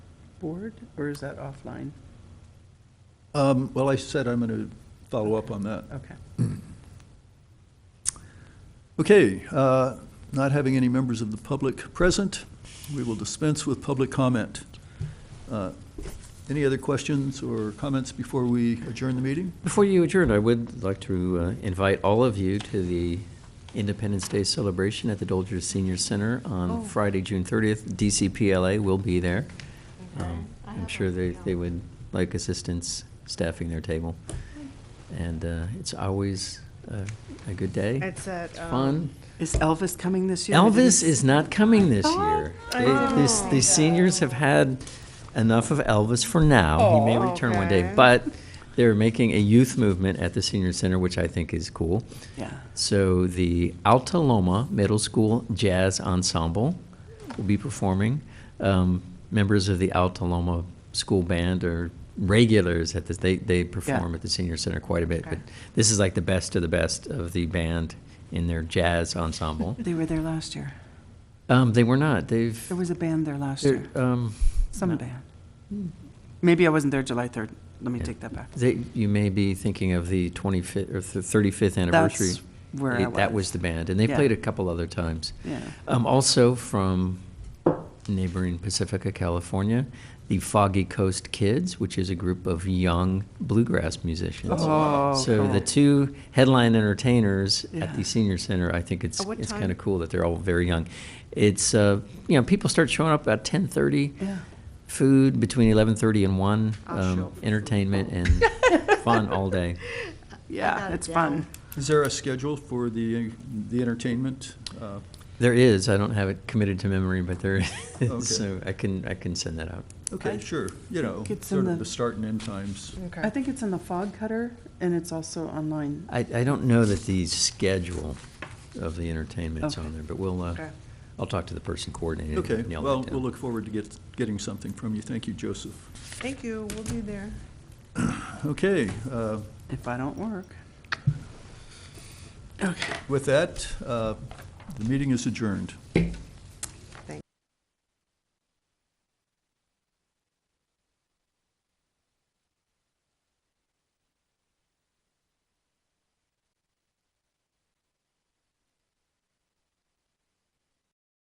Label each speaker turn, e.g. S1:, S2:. S1: board, or is that offline?
S2: Um, Well, I said I'm going to follow up on that.
S1: Okay.
S2: Okay, uh, not having any members of the public present, we will dispense with public comment. Uh, Any other questions or comments before we adjourn the meeting?
S3: Before you adjourn, I would like to uh, invite all of you to the Independence Day celebration at the Dolger Senior Center
S4: Oh.
S3: on Friday, June 30th. DCPLA will be there.
S4: Okay.
S3: Um,
S4: I
S3: I'm
S4: have
S3: sure
S4: a
S3: they,
S4: feeling.
S3: they would like assistance staffing their table.
S4: Hmm.
S3: And uh, it's always a a good day.
S5: It's at, um,
S3: fun.
S1: Is Elvis coming this year?
S3: Elvis is not coming this year.
S5: I
S3: They- this-
S5: didn't
S3: The seniors have had enough of Elvis for now. He may
S5: Oh,
S3: return one day,
S5: okay.
S3: but they're making a youth movement at the senior center, which I think is cool.
S1: Yeah.
S3: So the Altaloma Middle School Jazz Ensemble will be performing. Um, members of the Altaloma School Band are regulars at this. They, they perform at the Senior Center quite a bit, but
S5: Okay.
S3: this is like the best of the best of the band in their jazz ensemble.
S1: They were there last year.
S3: Um, they were not. They've.
S1: There was a band there last
S3: they're,
S1: year,
S3: um,
S1: some
S3: no. Hmm.
S1: band. Maybe I wasn't there July 3rd. Let me
S3: Yeah.
S1: take that back.
S3: They, you may be thinking of the 25th or th- 35th anniversary.
S1: That's where I
S3: It- That was the band, and they
S1: Yeah.
S3: played a couple other times.
S1: Yeah.
S3: Um, also from neighboring Pacifica, California, the Foggy Coast Kids, which is a group of young bluegrass musicians.
S1: Oh,
S3: so
S1: cool.
S3: the two headline entertainers at
S1: Yeah.
S3: the senior center, I think it's
S5: At what
S3: it's
S5: time?
S3: kind of cool that they're all very young. It's uh, you know people start showing up about 10:30
S1: Yeah.
S3: food between 11:30 and 1
S5: I'll show up for
S3: entertainment and fun all day
S1: Yeah,
S4: Without a
S1: it's fun.
S4: doubt.
S2: Is there a schedule for the the entertainment? Uh,
S3: there is i don't have it committed to memory but there is
S2: Okay.
S3: so i can i can send that out
S2: Okay,
S1: I
S2: sure, you know,
S1: think it's in
S2: sort of
S1: the-
S2: the start and end times.
S5: Okay.
S1: I think it's in the Fog Cutter, and it's also online.
S3: i, I don't know that the schedule of the entertainment's
S1: Okay.
S3: on there but we'll uh,
S5: Okay.
S3: i'll talk to the person coordinating it and
S2: Okay,
S3: nail
S2: well,
S3: that
S2: we'll
S3: down.
S2: look forward to get, getting something from you. Thank you, Joseph.
S5: Thank you, we'll be there.
S2: Okay, uh,
S1: If I don't work.
S2: with that, uh, the meeting is adjourned.